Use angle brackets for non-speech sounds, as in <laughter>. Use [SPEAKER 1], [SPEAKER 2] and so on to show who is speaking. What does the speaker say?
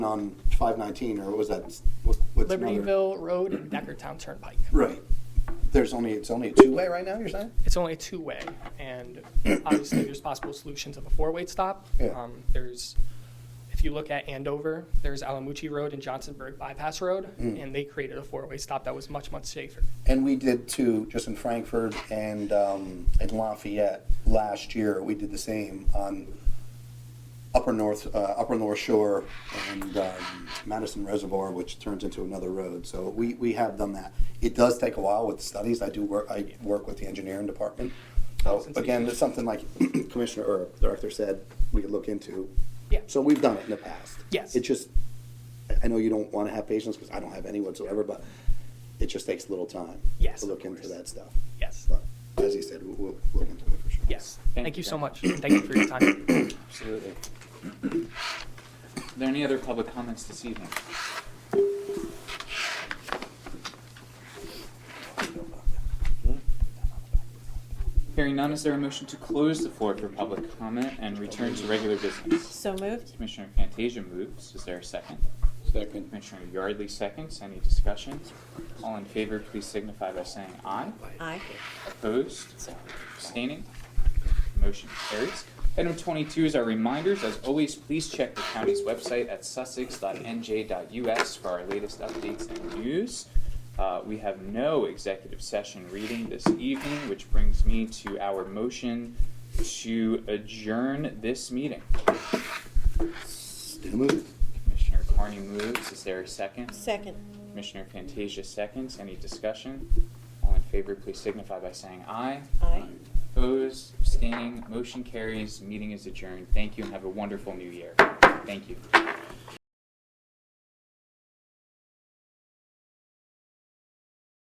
[SPEAKER 1] on five nineteen, or was that, what- what's another?
[SPEAKER 2] Libertyville Road and Deckertown Turnpike.
[SPEAKER 1] Right. There's only, it's only a two-way right now, you're saying?
[SPEAKER 2] It's only a two-way, and obviously, there's possible solutions of a four-way stop.
[SPEAKER 1] Yeah.
[SPEAKER 2] Um, There's, if you look at Andover, there's Alamucci Road and Johnsonburg Bypass Road,
[SPEAKER 1] Mm.
[SPEAKER 2] and they created a four-way stop that was much, much safer.
[SPEAKER 1] And we did two, just in Frankfurt and, um, and Lafayette last year, we did the same on Upper North, uh, Upper North Shore and, um, Madison Reservoir, which turns into another road, so we, we have done that. It does take a while with studies, I do work, I work with the engineering department.
[SPEAKER 2] Oh,
[SPEAKER 1] So,
[SPEAKER 2] since you-
[SPEAKER 1] Again, it's something like <clears throat> Commissioner or Director said, we could look into.
[SPEAKER 2] Yeah.
[SPEAKER 1] So we've done it in the past.
[SPEAKER 2] Yes.
[SPEAKER 1] It just, I know you don't want to have patience because I don't have any whatsoever, but it just takes a little time.
[SPEAKER 2] Yes,
[SPEAKER 1] To look
[SPEAKER 2] of
[SPEAKER 1] into
[SPEAKER 2] course.
[SPEAKER 1] that stuff.
[SPEAKER 2] Yes,
[SPEAKER 1] But as he said, we'll, we'll look into it for sure.
[SPEAKER 2] yes.
[SPEAKER 3] Thank
[SPEAKER 2] Thank you
[SPEAKER 3] you.
[SPEAKER 2] so much. Thank you for your
[SPEAKER 1] <clears throat>
[SPEAKER 2] time.
[SPEAKER 3] Absolutely. Are there any other public comments this evening? Hearing none, is there a motion to close the floor for public comment and return to regular business?
[SPEAKER 4] So moved.
[SPEAKER 3] Commissioner Fantasia moves. Is there a second?
[SPEAKER 5] Second.
[SPEAKER 3] Commissioner Yardley seconds. Any discussion? All in favor, please signify by saying aye.
[SPEAKER 4] Aye.
[SPEAKER 3] Opposed? Abstaining? Motion carries. Item twenty-two is our reminders. As always, please check the county's website at sussex.nj.us for our latest updates and news. Uh, we have no executive session reading this evening, which brings me to our motion to adjourn this meeting.
[SPEAKER 1] Still moving.
[SPEAKER 3] Commissioner Carney moves. Is there a second?
[SPEAKER 4] Second.
[SPEAKER 3] Commissioner Fantasia seconds. Any discussion? All in favor, please signify by saying aye.
[SPEAKER 4] Aye.
[SPEAKER 3] Opposed, abstaining, motion carries, meeting is adjourned. Thank you and have a wonderful new year. Thank you.